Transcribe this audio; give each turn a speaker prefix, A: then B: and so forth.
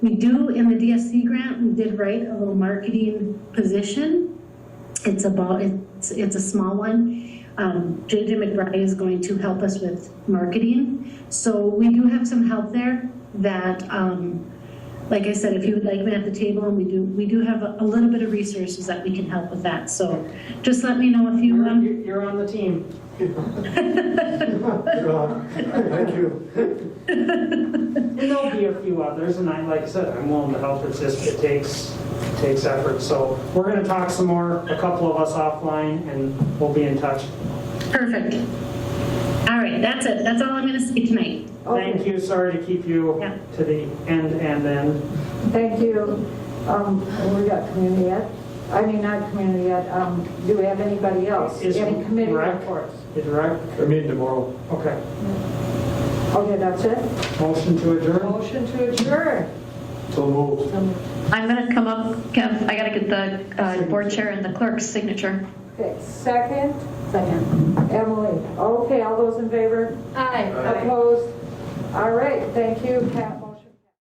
A: We do, in the DSC grant, we did write a little marketing position. It's about, it's, it's a small one. Um, JJ McBride is going to help us with marketing. So we do have some help there that, um, like I said, if you would like me at the table, and we do, we do have a a little bit of resources that we can help with that. So just let me know if you,
B: You're,
A: um,
B: you're- you're on the team.
C: God, Thank you.
B: And there'll be a few others, and I, like I said, I'm willing to help, it's just, it takes, takes effort. So we're gonna talk some more, a couple of us offline, and we'll be in touch.
A: perfect. All right, that's it. That's all I'm going to say tonight.
B: Thank you, sorry to keep you
A: Yeah.
B: to the end and then.
D: Thank you. Um, we got community ed, I mean, not community ed, um, do we have anybody else?
B: Is
D: Any committee
B: rec-
D: reports?
B: Is right?
C: I mean tomorrow.
B: Okay.
D: Okay, that's it?
B: Motion to adjourn?
D: Motion to adjourn.
C: So moved.
E: I'm going to come up, Kev, I got to get the uh, board chair and the clerk's signature.
D: Okay, second,
F: Second.
D: Emily. Okay, all those in favor?
F: Aye.
D: Opposed? All right, thank you, Cap.